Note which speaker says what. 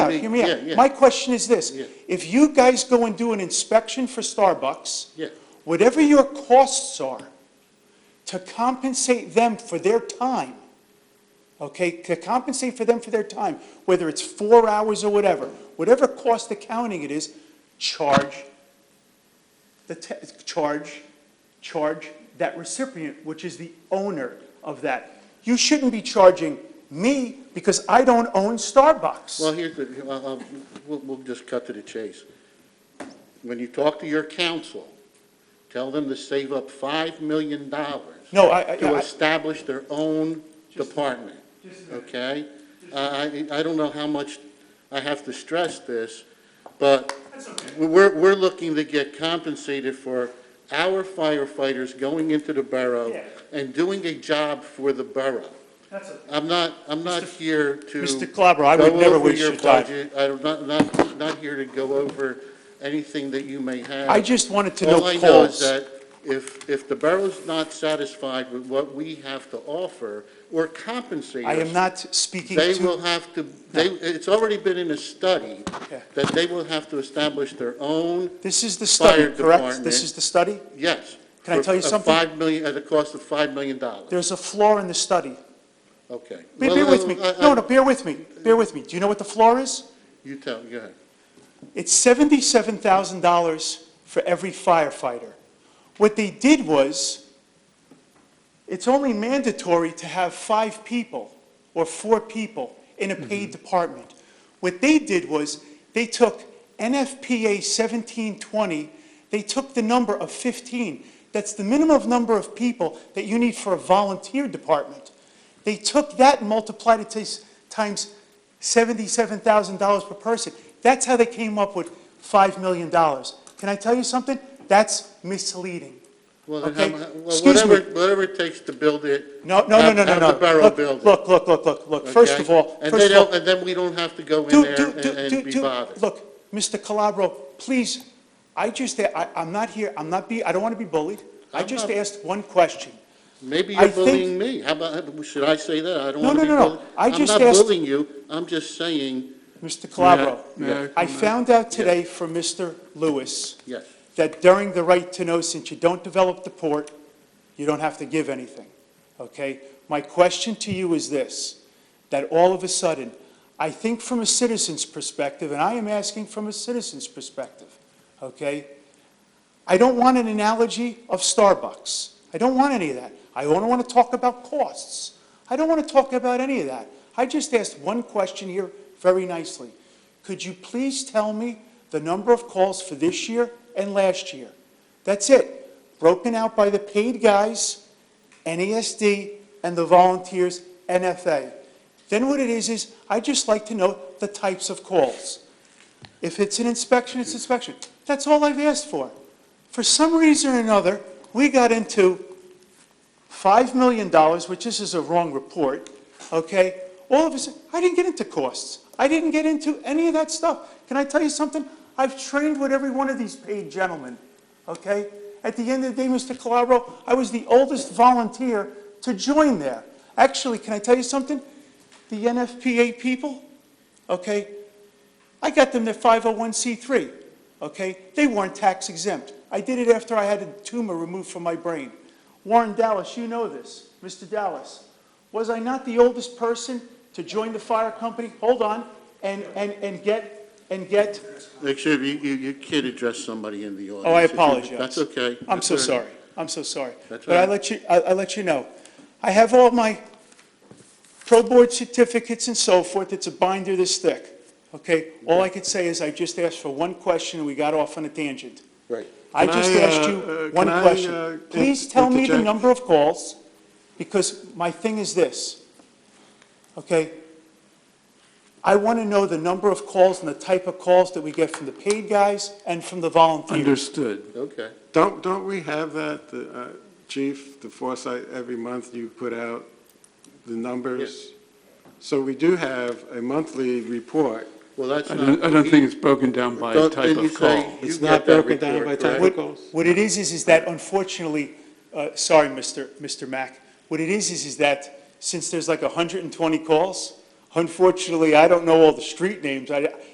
Speaker 1: out, hear me
Speaker 2: Yeah, yeah.
Speaker 1: out. My question is this,
Speaker 2: Yeah.
Speaker 1: if you guys go and do an inspection for Starbucks,
Speaker 2: Yeah.
Speaker 1: whatever your costs are, to compensate them for their time, okay, to compensate for them for their time, whether it's four hours or whatever, whatever cost accounting it is, charge the, ta- charge, charge that recipient, which is the owner of that. You shouldn't be charging me because I don't own
Speaker 2: Well,
Speaker 1: Starbucks.
Speaker 2: here's the, uh, uh, we'll, we'll just cut to the chase. When you talk to your council, tell them to save up $5 million to
Speaker 1: No, I, I- I,
Speaker 2: establish their own department, okay? I, I I don't know how much I have to stress this, but we're, we're looking to get compensated for our firefighters going into the borough
Speaker 1: Yeah.
Speaker 2: and doing a job for the borough. I'm not, I'm not here to.
Speaker 1: Mr. Calabro, I would
Speaker 2: go
Speaker 1: never
Speaker 2: over
Speaker 1: waste your time.
Speaker 2: budget. I'm not, not, not here to go over anything that you may have.
Speaker 1: I just wanted to know
Speaker 2: All I know is
Speaker 1: costs.
Speaker 2: that if, if the borough's not satisfied with what we have to offer or compensate
Speaker 1: I am
Speaker 2: us,
Speaker 1: not speaking
Speaker 2: They
Speaker 1: to,
Speaker 2: will have to, they, it's already been in a study
Speaker 1: Okay.
Speaker 2: that they will have to establish their own,
Speaker 1: this is the
Speaker 2: Fire
Speaker 1: study, correct?
Speaker 2: department.
Speaker 1: This is the study?
Speaker 2: yes.
Speaker 1: Can I
Speaker 2: for
Speaker 1: tell you
Speaker 2: a
Speaker 1: something?
Speaker 2: Five million, at a cost of $5 million.
Speaker 1: There's a flaw in the study.
Speaker 2: Okay.
Speaker 1: Be-
Speaker 2: Well,
Speaker 1: Bear with me.
Speaker 2: I- I-
Speaker 1: No, no, bear with me. Bear with me. Do you know what the flaw is?
Speaker 2: You tell, go ahead.
Speaker 1: It's seventy-seven thousand dollars for every firefighter. What they did was, it's only mandatory to have five people or four people in a
Speaker 2: Mm-hmm.
Speaker 1: paid department. What they did was, they took NFPA seventeen twenty, they took the number of fifteen. That's the minimum number of people that you need for a volunteer department. They took that and multiplied it tis- times seventy-seven thousand dollars per person. That's how they came up with five million dollars. Can I tell you something? That's misleading.
Speaker 2: Well, then,
Speaker 1: Okay,
Speaker 2: how mu- well,
Speaker 1: excuse me.
Speaker 2: whatever, whatever it takes to build it.
Speaker 1: No, no, no,
Speaker 2: have-
Speaker 1: no, no,
Speaker 2: have
Speaker 1: no.
Speaker 2: the borough
Speaker 1: Look,
Speaker 2: build it,
Speaker 1: Look, look, look, look, look. First
Speaker 2: okay?
Speaker 1: of all,
Speaker 2: And
Speaker 1: first
Speaker 2: then
Speaker 1: of all.
Speaker 2: they'll- And then we don't have to go in
Speaker 1: do-
Speaker 2: there
Speaker 1: do-
Speaker 2: and
Speaker 1: do- do-
Speaker 2: and be
Speaker 1: do-
Speaker 2: bothered.
Speaker 1: Look, Mr. Calabro, please, I just, I, I'm not here, I'm not be, I don't want to be bullied. I
Speaker 2: I'm
Speaker 1: just
Speaker 2: not-
Speaker 1: asked one question.
Speaker 2: Maybe
Speaker 1: I
Speaker 2: you're
Speaker 1: think-
Speaker 2: bullying me. How about, should I say that? I don't
Speaker 1: No,
Speaker 2: want to
Speaker 1: no,
Speaker 2: be
Speaker 1: no, no.
Speaker 2: bullied.
Speaker 1: I just
Speaker 2: I'm not
Speaker 1: asked-
Speaker 2: bullying you. I'm just saying,
Speaker 1: Mr.
Speaker 2: May I- may I
Speaker 1: Calabro, I
Speaker 2: comment?
Speaker 1: found out today from Mr. Lewis
Speaker 2: yes.
Speaker 1: that during the right to know, since you don't develop the port, you don't have to give anything, okay? My question to you is this, that all of a sudden, I think from a citizen's perspective, and I am asking from a citizen's perspective, okay? I don't want an analogy of Starbucks. I don't want any of that. I don't want to talk about costs. I don't want to talk about any of that. I just asked one question here very nicely. Could you please tell me the number of calls for this year and last year? That's it, broken out by the paid guys, NESD, and the volunteers, NFA. Then what it is, is I'd just like to know the types of calls. If it's an inspection, it's inspection. That's all I've asked for. For some reason or another, we got into $5 million, which this is a wrong report, okay? All of a sudden, I didn't get into costs. I didn't get into any of that stuff. Can I tell you something? I've trained with every one of these paid gentlemen, okay? At the end of the day, Mr. Calabro, I was the oldest volunteer to join there. Actually, can I tell you something? The NFPA people, okay, I got them oh their 501c3. okay? They weren't tax exempt. I did it after I had a tumor removed from my brain. Warren Dallas, you know this, Mr. Dallas. Was I not the oldest person to join the fire company? Hold on, and, and, and get, and get,
Speaker 2: Actually, you, you, you can't address somebody in the audience.
Speaker 1: oh, I
Speaker 2: If you-
Speaker 1: apologize.
Speaker 2: That's okay.
Speaker 1: I'm so
Speaker 2: That's all right.
Speaker 1: sorry. I'm so sorry.
Speaker 2: That's
Speaker 1: But I
Speaker 2: all right.
Speaker 1: let you, I, I let you know. I have all my pro board certificates and so forth. It's a binder this thick, okay? All I could say is I just asked for one question and we got off on a tangent.
Speaker 2: Right.
Speaker 1: I
Speaker 3: Can
Speaker 1: just
Speaker 3: I, uh,
Speaker 1: asked
Speaker 3: uh,
Speaker 1: you one
Speaker 3: can I, uh,
Speaker 1: question.
Speaker 3: in-
Speaker 1: Please tell me the
Speaker 3: interject?
Speaker 1: number of calls, because my thing is this, okay? I want to know the number of calls and the type of calls that we get from the paid guys and from the volunteers.
Speaker 3: Understood.
Speaker 2: Okay.
Speaker 3: Don't, don't we have that, the, uh, Chief, the Foresight, every month you put out the numbers? So we do have a monthly report.
Speaker 2: Well, that's
Speaker 4: I
Speaker 2: not.
Speaker 4: don't, I don't think it's broken down by
Speaker 2: Don't-
Speaker 4: type
Speaker 2: didn't you
Speaker 4: of
Speaker 2: say
Speaker 4: call.
Speaker 2: you
Speaker 3: It's
Speaker 2: got
Speaker 3: not
Speaker 2: that
Speaker 3: broken down
Speaker 2: report,
Speaker 3: by
Speaker 2: correct?
Speaker 3: type of
Speaker 1: What,
Speaker 3: calls.
Speaker 1: what it is, is, is that unfortunately, uh, sorry, Mr. Mr. Mack, what it is, is, is that since there's like hundred and twenty calls, Unfortunately, I don't know all the street names. I,